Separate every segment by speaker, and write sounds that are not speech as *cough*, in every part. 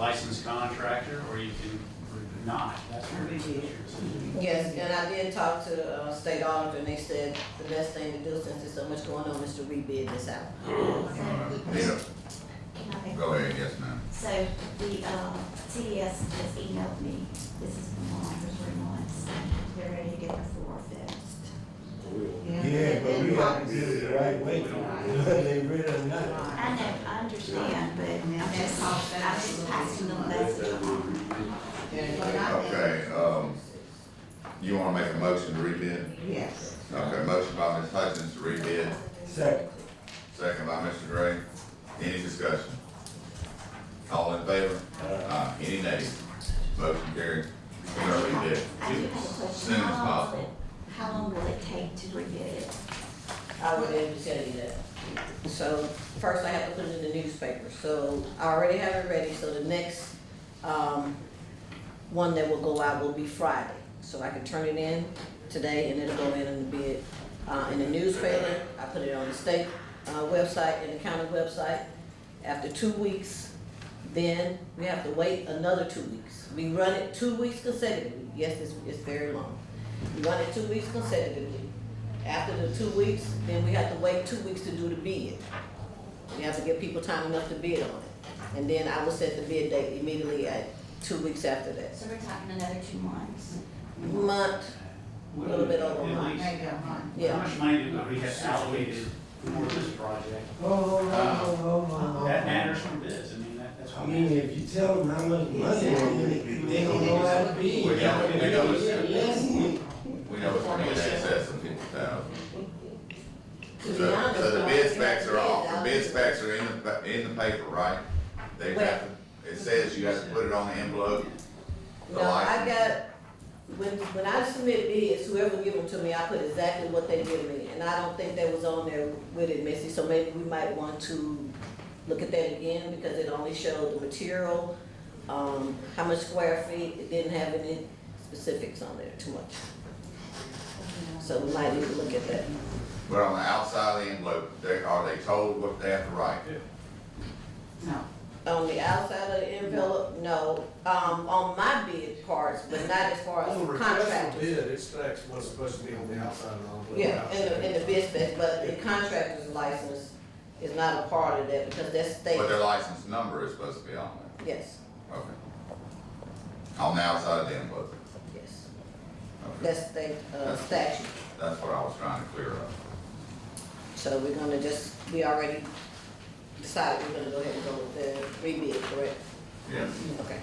Speaker 1: licensed contractor, or you can not, that's your decision.
Speaker 2: Yes, and I did talk to uh, state auditor, and they said the best thing to do since there's so much going on is to rebid this out.
Speaker 3: Nita,
Speaker 4: Okay,
Speaker 3: go ahead, yes, ma'am.
Speaker 4: so the, uh, TDS just emailed me, this is from on for three months, they're ready to get the floor fixed.
Speaker 5: Yeah, but we have to do it the right way, *laughs* whether they read or not.
Speaker 4: I know, I understand, but I'm just, I'm just passing the message on.
Speaker 3: Okay, um, you wanna make a motion to rebid?
Speaker 6: Yes.
Speaker 3: Okay, motion by Ms. Hutchins to rebid,
Speaker 5: Second,
Speaker 3: second by Mr. Gray. Any discussion? All in favor? Aye. Any nays? Motion carried. We are rebid.
Speaker 4: I do have a question.
Speaker 3: Soon as
Speaker 4: How long will
Speaker 3: possible.
Speaker 4: it- How long will it take to rebid it?
Speaker 2: I would able to tell you that. So first I have to put it in the newspaper, so I already have it ready, so the next, um, one that will go out will be Friday. So I can turn it in today and it'll go in and be, uh, in the newspaper, I put it on the state, uh, website and the county website. After two weeks, then we have to wait another two weeks. We run it two weeks consecutively, yes, it's, it's very long. We run it two weeks consecutively, after the two weeks, then we have to wait two weeks to do the bid. We have to give people time enough to bid on it. And then I will set the bid date immediately at two weeks after that.
Speaker 4: So we're talking another two months.
Speaker 2: Month, a little bit over a
Speaker 1: At
Speaker 2: month.
Speaker 1: least- How
Speaker 2: yeah.
Speaker 1: much money did we have allocated for this project?
Speaker 5: oh, oh, oh, oh, oh.
Speaker 1: That matters from this, I mean, that, that's
Speaker 5: I
Speaker 1: what.
Speaker 5: mean, if you tell them how much money, they don't they don't know how to be.
Speaker 3: We got it, we got it.
Speaker 5: Yes,
Speaker 3: We know it's gonna be in excess of fifty thousand.
Speaker 2: To
Speaker 3: So,
Speaker 2: be honest,
Speaker 3: so the
Speaker 2: I
Speaker 3: bid
Speaker 2: think
Speaker 3: specs are off,
Speaker 2: that's
Speaker 3: the bid specs are in the, pa- in the paper, right? They have, to- it says you have to put it on the envelope.
Speaker 2: No, I got, when, when I submit bids, whoever give them to me, I put exactly what they give me. And I don't think that was on there with it, Missy, so maybe we might want to look at that again because it only showed the material, um, how much square feet, it didn't have any specifics on there too much. So we might need to look at that.
Speaker 3: But on the outside of the envelope, they, are they told what they have to write?
Speaker 6: No.
Speaker 2: On the outside of the envelope, no, um, on my bid parts, but not as far as
Speaker 7: On the request for
Speaker 2: contractors.
Speaker 7: bid, it stacks what's supposed to be on the outside and on the
Speaker 2: Yeah,
Speaker 7: outside.
Speaker 2: in the, in the business, but the contractor's license is not a part of that because that's state,
Speaker 3: But uh, their license number is supposed to be on
Speaker 2: yes,
Speaker 3: there, okay? On the outside of the envelope,
Speaker 2: yes,
Speaker 3: okay,
Speaker 2: that's state, uh, statute.
Speaker 3: that's what I was trying to clear up.
Speaker 2: So we're gonna just, we already decided we're gonna go ahead and go with the rebid, correct?
Speaker 3: Yes.
Speaker 2: Okay.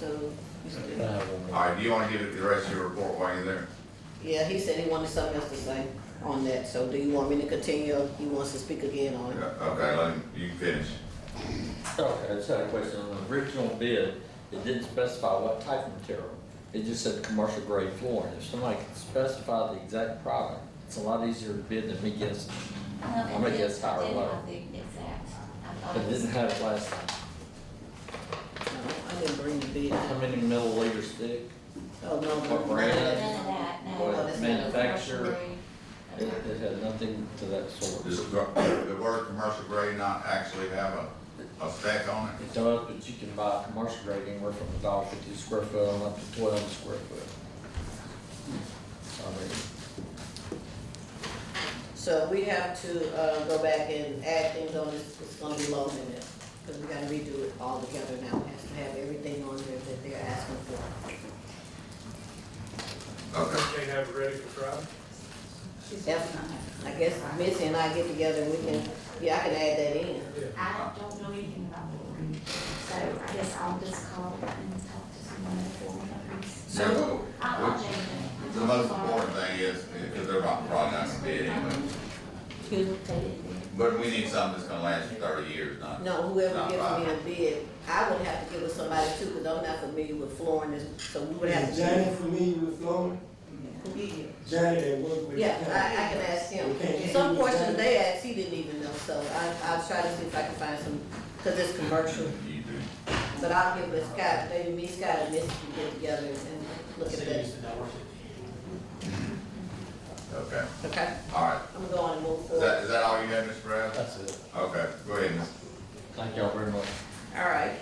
Speaker 2: So,
Speaker 3: All right, do you wanna give it the rest of your report while you're there?
Speaker 2: yeah, he said he wanted something else to say on that, so do you want me to continue, or he wants to speak again on it?
Speaker 3: Yeah, Okay, let him, you finish.
Speaker 8: Okay, I just had a question. On the original bid, it didn't specify what type of material. It just said commercial grade flooring. If somebody can specify the exact product, it's a lot easier to bid than me guessing. I'm gonna guess higher or lower.
Speaker 4: Didn't have the exact. I thought
Speaker 8: It didn't have it last time.
Speaker 2: No, I didn't bring the bid.
Speaker 8: How many milliliters thick?
Speaker 2: Oh, no, no.
Speaker 8: What brand?
Speaker 4: None of that, no.
Speaker 8: What
Speaker 2: Oh, that's not a
Speaker 8: manufacturer?
Speaker 4: Grocery.
Speaker 8: It, it had nothing to that sort.
Speaker 3: Does the word commercial grade not actually have a, a spec on it?
Speaker 8: It does, but you can buy commercial grade anywhere from a dollar fifty square foot on up to twelve square foot. I mean,
Speaker 2: So we have to, uh, go back and add things on, it's, it's gonna be low in there, because we gotta redo it all together now, it has to have everything on there that they're asking for.
Speaker 3: Okay,
Speaker 7: They have it ready for Friday?
Speaker 2: I guess Missy and I get together, we can, yeah, I can add that in.
Speaker 4: I don't know anything about flooring, so I guess I'll just call and talk to someone at flooring companies.
Speaker 3: So-
Speaker 4: I'll,
Speaker 3: 네.
Speaker 4: I'll change it.
Speaker 3: the most important thing is, because they're not, probably not gonna bid anyway, but we need something that's gonna last you thirty years, not.
Speaker 2: No, whoever gives me a bid, I would have to give it somebody too, because I'm not familiar with flooring, and- so we would have
Speaker 5: Is
Speaker 2: to.
Speaker 5: Johnny familiar with Florida? Johnny that work with the
Speaker 2: Yeah,
Speaker 5: county?
Speaker 2: I, I can ask him.
Speaker 5: Okay.
Speaker 2: Some portions they asked, he didn't even know, so I, I'll try to see if I can find some, because it's commercial.
Speaker 3: You do.
Speaker 2: But I'll give it Scott, maybe me, Scott, and Missy can get together and look at that.
Speaker 1: Cities that don't work
Speaker 3: Okay,
Speaker 2: Okay,
Speaker 3: all right.
Speaker 2: I'm gonna go on and move
Speaker 3: Is
Speaker 2: forward.
Speaker 3: that, is that all you have, Mr. Brown?
Speaker 8: that's it.
Speaker 3: Okay, go ahead, Ms.
Speaker 8: Thank y'all very much.
Speaker 2: All right,